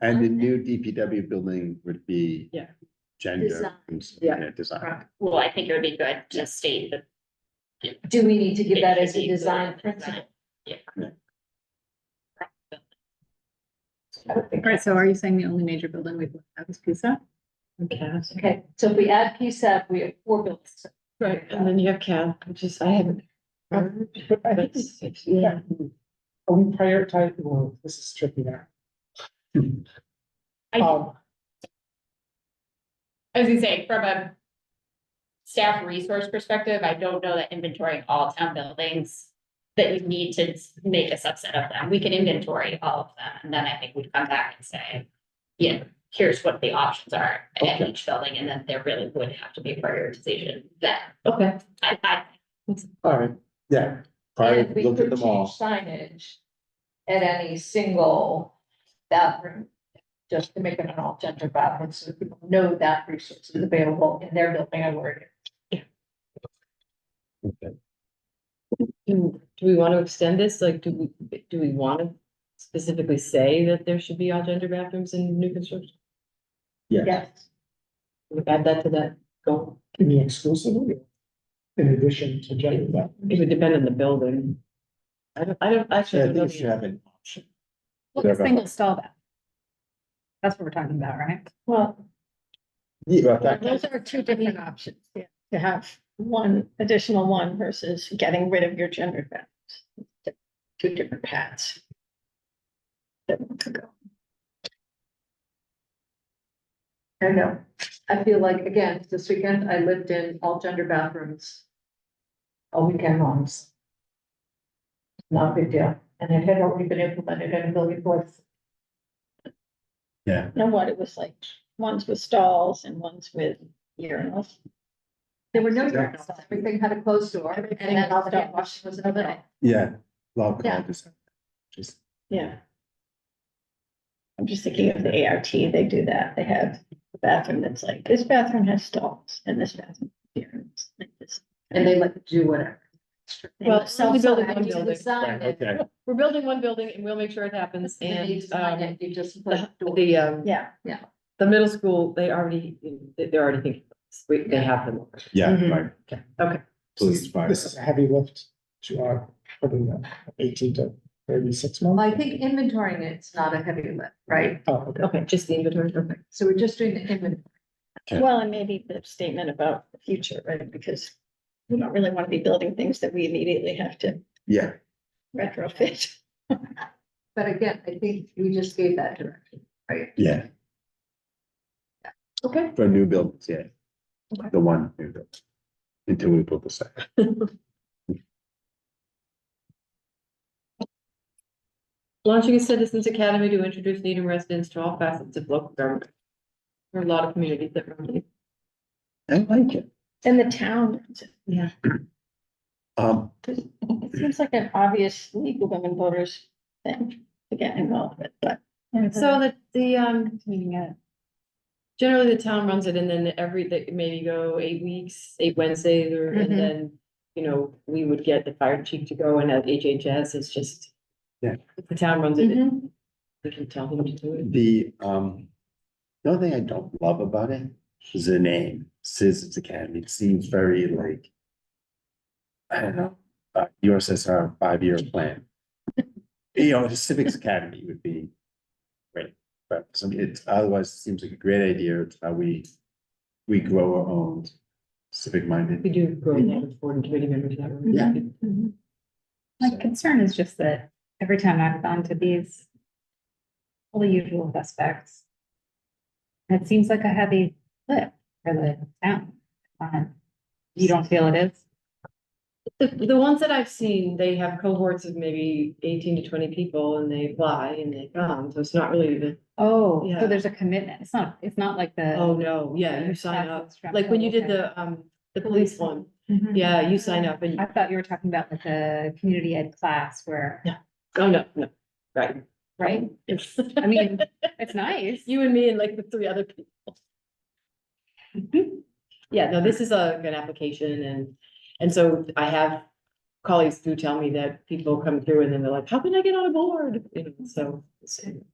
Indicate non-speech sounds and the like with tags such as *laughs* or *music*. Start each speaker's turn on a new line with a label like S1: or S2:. S1: And the new DPW building would be.
S2: Yeah.
S1: Gender.
S3: Design.
S1: Yeah. Design.
S4: Well, I think it would be good to state that.
S3: Do we need to give that as
S4: it should
S3: a
S4: be
S3: design
S4: included in the
S3: principle?
S5: Right, so are you saying the only major building we've looked at is PISA?
S2: CAS.
S3: Okay, so if we add PSAP, we have four buildings.
S2: Right, and then you have CAD, which is, I haven't. heard,
S6: I
S2: but
S6: think-
S2: it's- it's- Yeah,
S6: Are we prioritizing, well, this is tricky now.
S4: I-
S6: Um,
S4: I was gonna say, from a staff resource perspective, I don't know that inventorying all town buildings that you need to make a subset of them. We can inventory all of them, and then I think we'd come back and say, you know, here's what the options are at each building, and then there really would have to be a prioritization then.
S2: okay.
S4: I, I,
S1: All right, yeah.
S3: And
S1: Probably
S3: if we
S1: look
S3: could
S1: at
S3: change
S1: them all.
S3: signage at any single bathroom, just to make it an all gender bathroom, so that people know that resource is available in their building or where.
S1: Okay.
S2: Do, do we want to extend this? Like, do we, do we want to specifically say that there should be all gender bathrooms in new construction?
S1: Yeah.
S3: Yes.
S2: We Add that to that goal.
S6: Can be exclusively in addition to gender. balance.
S2: It would depend on the building. I don't, I don't, actually.
S1: Yeah, I
S2: don't
S1: think
S2: know
S1: you should
S2: the-
S1: have an option.
S5: Well,
S1: Yeah,
S5: the
S1: but-
S5: single stall bath. That's what we're talking about, right?
S7: Well,
S1: Yeah, but that-
S7: those are two different options, yeah, to have one additional one versus getting rid of your gendered balance. Two different paths. That one could go.
S3: I know. I feel like, again, this weekend, I lived in all gender bathrooms. All weekend longs. Not a big deal, and it had already been implemented in a million places.
S7: You Know what, it was like, ones with stalls and ones with urinals.
S3: There were no urinals, everything had a closed door, and then all the hand washing was in the middle.
S1: Yeah, love
S7: Yeah.
S1: just. Just,
S7: Yeah. I'm just thinking of the ART, they do that, they have a bathroom that's like, this bathroom has stalls and this bathroom. has urinals, like this.
S3: And they let you do whatever.
S2: Well,
S7: They-
S2: we're only building
S3: I
S2: one
S3: do
S2: building.
S3: design
S1: right,
S3: it.
S1: okay,
S2: We're building one building and we'll make sure it happens
S3: Then you
S2: and,
S3: design
S2: um,
S3: it, you just put
S2: the,
S3: a door.
S2: the, um,
S7: Yeah,
S2: the middle school, they already, they- they're already thinking, we, they have them.
S1: yeah,
S2: Mhm.
S1: right,
S2: Okay, okay.
S1: please, fire.
S6: This is a heavy lift to our, probably uh, eighteen to thirty-six
S3: Well,
S6: months.
S3: I think inventorying it's not a heavy lift, right?
S6: Oh, okay.
S2: Okay, just the inventory, okay.
S3: So we're just doing the inventory.
S1: Yeah.
S7: well, and maybe the statement about the future, right, because we don't really want to be building things that we immediately have to
S1: yeah,
S7: retrofit.
S3: But again, I think we just gave that direction, right?
S1: yeah,
S3: Okay.
S1: for new builds, yeah.
S2: Okay.
S1: The one new build. Until we build the second.
S2: Launching a citizens academy to introduce Needham residents to all facets of local government. There are a lot of communities that run these.
S1: I like it.
S7: And the town,
S1: Um,
S7: it seems like an obvious League of Women Voters thing to get involved with, but.
S2: So the, the, um, generally the town runs it and then every, they maybe go eight weeks, eight Wednesdays or,
S3: Mhm.
S2: and then, you know, we would get the fire chief to go and at HHS, it's just.
S1: Yeah.
S2: The town runs it,
S3: Mm-hmm.
S2: we can tell them to do it.
S1: the, um, the only thing I don't love about it is the name, Citizens Academy, it seems very like. I don't know, uh, USSR five-year plan. You know, the Civics Academy would be great, but some, it otherwise it seems like a great idea, it's how we, we grow our own civic-minded
S2: We do grow a lot of board and committee members that way.
S1: Yeah.
S5: My concern is just that every time I've gone to these, all the usual suspects. It seems like a heavy lift for the town. Um, You don't feel it is?
S2: The, the ones that I've seen, they have cohorts of maybe eighteen to twenty people and they apply and they come, so it's not really the,
S5: Oh,
S2: Yeah.
S5: so there's a commitment. It's not, it's not like the.
S2: oh, no, yeah, you sign up. Like when you did the, um, the police one, yeah, you sign up and,
S5: I thought you were talking about like the community ed class where,
S2: oh, no, no, right.
S5: right?
S2: It's,
S5: I mean, it's nice.
S2: you and me and like the three other people. *laughs* Yeah, no, this is a good application and, and so I have colleagues who tell me that people come through and then they're like, how can I get on a board? You know, so. it's-